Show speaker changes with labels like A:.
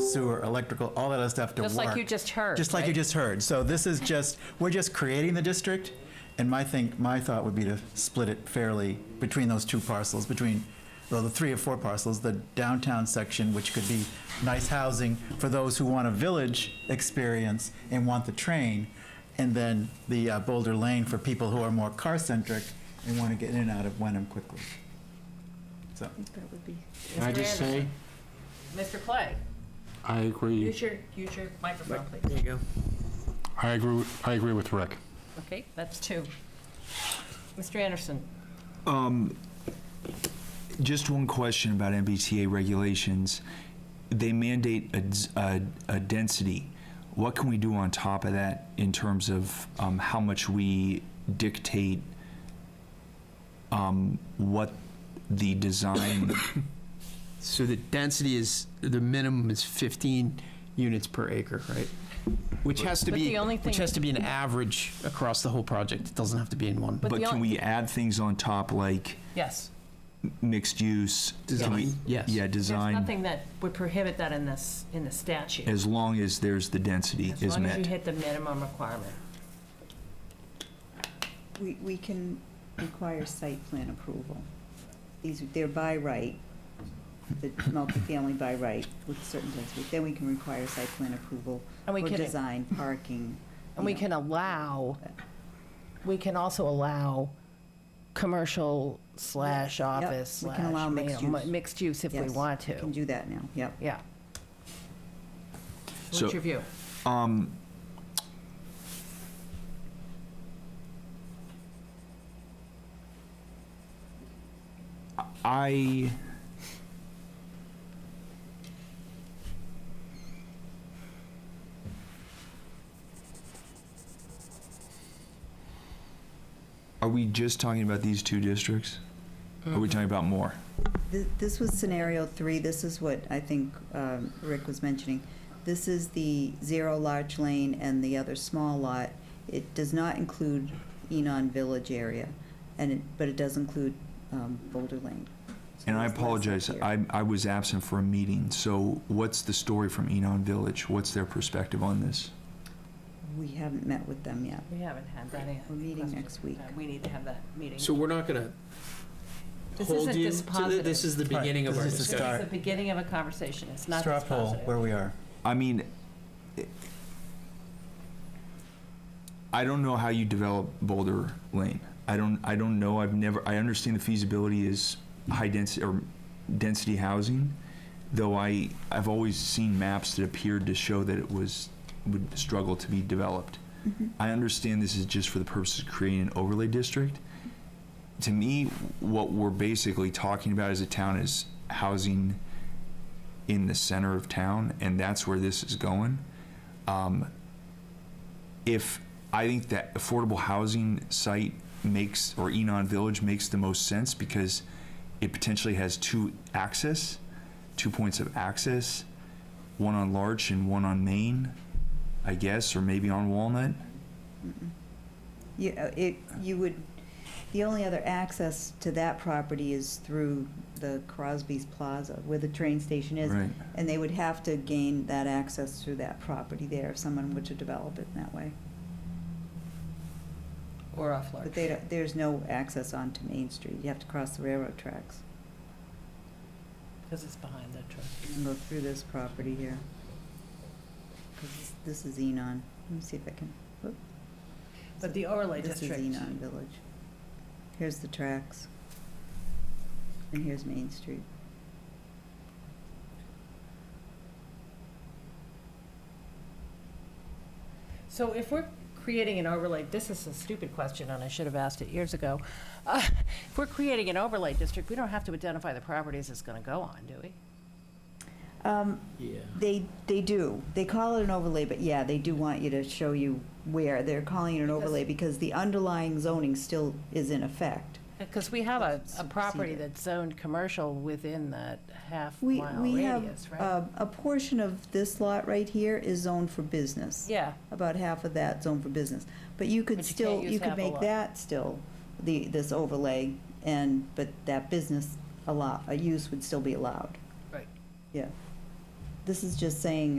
A: sewer, electrical, all that other stuff to work.
B: Just like you just heard,
A: Just like you
B: right?
A: just heard. So this is just, we're just creating the district, and my thing, my thought would be to split it fairly between those two parcels, between, well, the three or four parcels, the downtown section, which could be nice housing for those who want a village experience and want the train, and then the uh, Boulder Lane for people who are more car-centric and want to get in and out of Wenham quickly. So,
C: Can I just say,
B: Mr. Clay,
C: I agree,
B: use your, use your microphone,
D: There
B: please.
D: you go.
C: I agree, I agree with Rick.
B: Okay, that's two. Mr. Anderson,
D: Just one question about MBTA regulations. They mandate a, d- a- a density. What can we do on top of that in terms of um, how much we dictate um, what the design?
E: So the density is, the minimum is 15 units per acre, right? Which has to
B: But
E: be,
B: the only
E: which
B: thing-
E: has to be an average across the whole project. It doesn't have to be in one.
B: But
D: but
B: the
D: can
B: on-
D: we add things on top like
B: yes.
D: mixed use? Can we-
E: Design, yes.
D: Yeah,
B: There's
D: design.
B: nothing that would prohibit that in this, in the statute.
D: As long as there's the density
B: As
D: is
B: long as you
D: met.
B: hit the minimum requirement.
F: We, we can require site plan approval. These, they're by right, the multifamily by right with certain places. Then we can require site plan approval
B: And we
F: for
B: can-
F: design, parking.
G: And we
F: you know.
G: can allow, we can also allow commercial slash
F: Yep,
G: office
F: we
G: slash.
F: can allow
G: you
F: mixed
G: know, mi-
F: use.
G: Mixed use if we
F: Yes,
G: want
F: we Can
G: to,
F: do that now, yep.
G: yeah.
D: So-
B: What's your view?
D: I. Are we just talking about these two districts? Are
F: Mm-hmm.
D: we talking about more?
F: Th- This was scenario three, this is what I think um, Rick was mentioning. This is the zero large lane and the other small lot. It does not include Enon Village area, and it, but it does include um, Boulder Lane. So
D: And I
F: there's less up
D: apologize,
F: here.
D: I, I was absent for a meeting, so what's the story from Enon Village? What's their perspective on this?
F: We haven't met with them yet.
B: We haven't had that in.
F: We're meeting next week.
B: Uh, We need to have that meeting.
H: So we're not gonna
B: This
H: hold
B: isn't
H: you.
B: this
H: to the- This is the
A: Right,
H: beginning of
A: this
H: our
A: is the
H: discussion.
A: start.
B: It's the beginning of a conversation, it's not
A: straw
B: this
A: poll where
B: positive.
A: we are.
D: I mean, it- I don't know how you develop Boulder Lane. I don't, I don't know, I've never, I understand the feasibility is high density, or density housing, though I, I've always seen maps that appeared to show that it was, would struggle to be developed. I understand this is just for the purpose of creating an overlay district. To me, what we're basically talking about as a town is housing in the center of town, and that's where this is going. Um, if I think that affordable housing site makes or Enon Village makes the most sense because it potentially has two access, two points of access, one on Larch and one on Main, I guess, or maybe on Walnut.
F: You, uh, it, you would, the only other access to that property is through the Crosby's Plaza, where the train station is.
D: Right.
F: And they would have to gain that access through that property there if someone were to develop it in that way.
B: Or off
F: But
B: large.
F: they, don't- there's no access onto Main Street. You have to cross the railroad tracks
B: Because it's behind the truck.
F: and go through this property here. 'Cause this- This is Enon. Let me see if I can, whoop.
B: But the overlay
F: This is
B: district.
F: Enon Village. Here's the tracks. And here's Main Street.
B: So if we're creating an overlay, this is a stupid question, and I should have asked it years ago. Uh, If we're creating an overlay district, we don't have to identify the properties it's going to go on, do we?
F: Um,
H: Yeah.
F: They, they do. They call it an overlay, but yeah, they do want you to show you where. They're calling it an overlay because the underlying zoning still is in effect.
B: Because we have a, a property
F: Supersede it.
B: that's zoned commercial within that
F: We,
B: half-mile
F: we have,
B: radius, right?
F: uh, a portion of this lot right here is zoned for business.
B: Yeah,
F: About half of that zoned for business. But you could
B: But you can't
F: still,
B: use
F: you could
B: half a
F: make
B: lot.
F: that still, the, this overlay, and, but that business allow, a use would still be allowed.
B: Right.
F: Yeah. This is just saying